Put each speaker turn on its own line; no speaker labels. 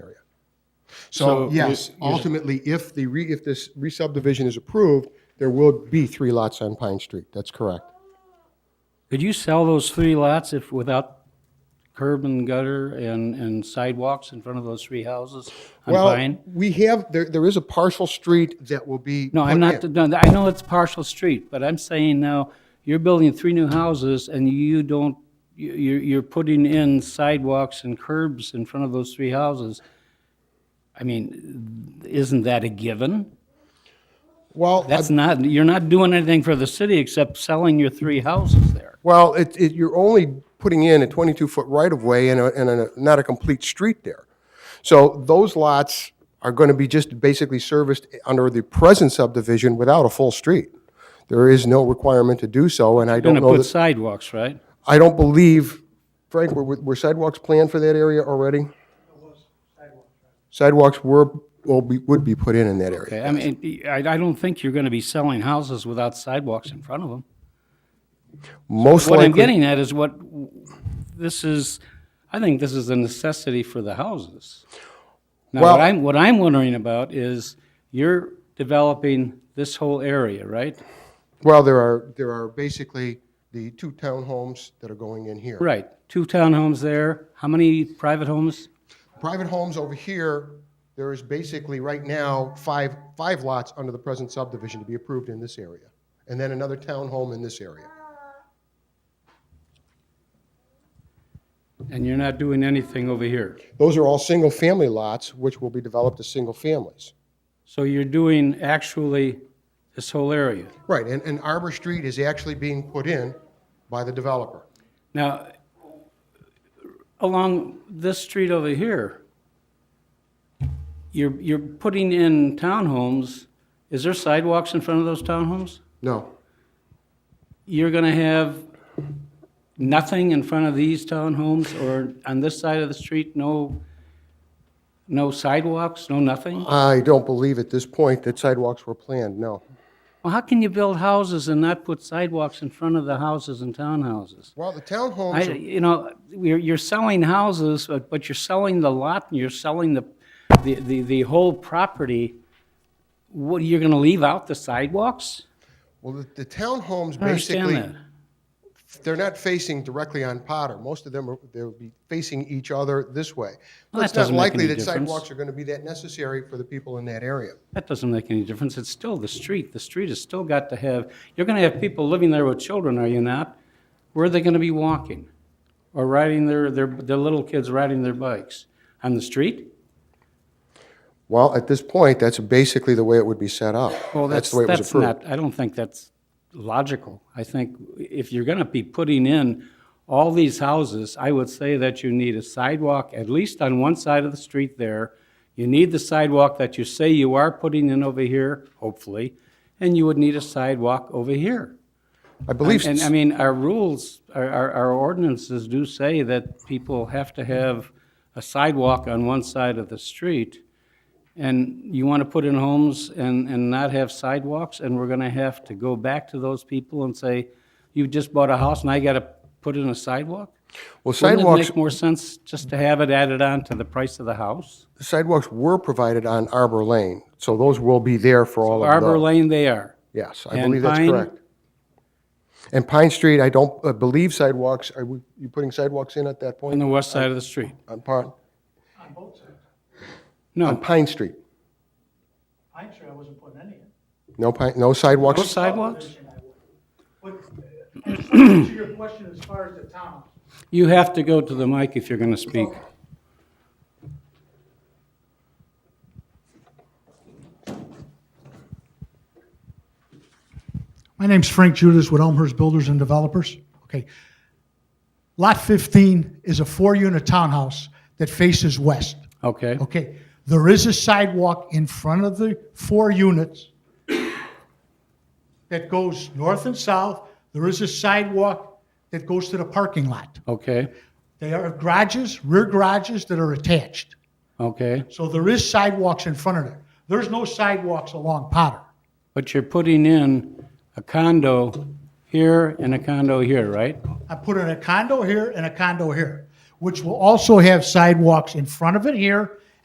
So
So
yes, ultimately, if the re, if this re-subdivision is approved, there will be three lots on Pine Street. That's correct.
Could you sell those three lots if, without curb and gutter and, and sidewalks in front of those three houses on
Well,
Pine?
we have, there, there is a partial street that will be.
No, I'm
put
not,
in.
no, I know it's partial street, but I'm saying now, you're building three new houses and you don't, you, you're, you're putting in sidewalks and curbs in front of those three houses. I mean, isn't that a given?
Well, uh, I-
That's not, you're not doing anything for the city except selling your three houses there.
well, it, it, you're only putting in a twenty-two foot right-of-way and a, and a, not a complete street there. So those lots are gonna be just basically serviced under the present subdivision without a full street. There is no requirement to do so, and I don't
Gonna
know
put
that,
sidewalks, right?
I don't believe, Frank, were, were sidewalks planned for that area already? Sidewalks were, will be, would be put in in that area.
Okay, I mean, I, I don't think you're gonna be selling houses without sidewalks in front of them.
Most
What I'm
likely,
getting at is what, this is, I think this is a necessity for the houses. Now,
Well-
what I'm, what I'm wondering about is, you're developing this whole area, right?
well, there are, there are basically the two townhomes that are going in here.
Right, two townhomes there, how many private homes?
Private homes over here, there is basically right now five, five lots under the present subdivision to be approved in this area. And then another townhome in this area.
And you're not doing anything over here.
Those are all single-family lots, which will be developed as single families.
So you're doing actually this whole area.
Right, and, and Arbor Street is actually being put in by the developer.
Now, along this street over here, you're, you're putting in townhomes. Is there sidewalks in front of those townhomes?
No.
You're gonna have nothing in front of these townhomes or on this side of the street, no, no sidewalks, no nothing?
I don't believe at this point that sidewalks were planned, no.
Well, how can you build houses and not put sidewalks in front of the houses and townhouses?
Well, the
I,
townhomes, are-
you know, you're, you're selling houses, but, but you're selling the lot and you're selling the, the, the, the whole property. What, you're gonna leave out the sidewalks?
well, the- the townhomes
I understand
basically,
that.
they're not facing directly on Potter. Most of them are, they'll be facing each other this way.
Well, that
It's not
doesn't make
likely
any
that
difference.
sidewalks are going to be that necessary for the people in that area.
That doesn't make any difference. It's still the street. The street has still got to have, you're gonna have people living there with children, are you not? Where are they gonna be walking? Or riding their, their, their little kids riding their bikes? On the street?
Well, at this point, that's basically the way it would be set up.
Well,
That's
that's,
the way it was
that's
approved.
not, I don't think that's logical. I think if you're gonna be putting in all these houses, I would say that you need a sidewalk, at least on one side of the street there. You need the sidewalk that you say you are putting in over here, hopefully, and you would need a sidewalk over here.
I believe,
And I
s-
mean, our rules, our, our our ordinances do say that people have to have a sidewalk on one side of the street. And you want to put in homes and, and not have sidewalks, and we're going to have to go back to those people and say, you just bought a house and I got to put in a sidewalk?
well,
Wouldn't it
sidewalks,
make more sense just to have it added on to the price of the house?
sidewalks were provided on Arbor Lane, so those will be there for all of those.
Arbor Lane, they are.
Yes, I
And
believe that's
Pine-
correct. And Pine Street, I don't uh, believe sidewalks, are we- you putting sidewalks in at that
On
point?
the west side of the street.
On Pine, on
No,
Pine Street?
Pine Street, I wasn't putting any in.
No pine, no
no
sidewalks?
sidewalks?
But uh, to your question as far as the town,
You have to go to the mic if you're going to speak.
My name's Frank Judas with Elmhurst Builders and Developers. Okay. Lot 15 is a four-unit townhouse that faces west.
Okay?
Okay, there is a sidewalk in front of the four units that goes north and south. There is a sidewalk that goes to the parking lot.
Okay,
They are garages, rear garages that are attached.
okay.
So there is sidewalks in front of there. There's no sidewalks along Potter.
But you're putting in a condo here and a condo here, right?
I put in a condo here and a condo here, which will also have sidewalks in front of it here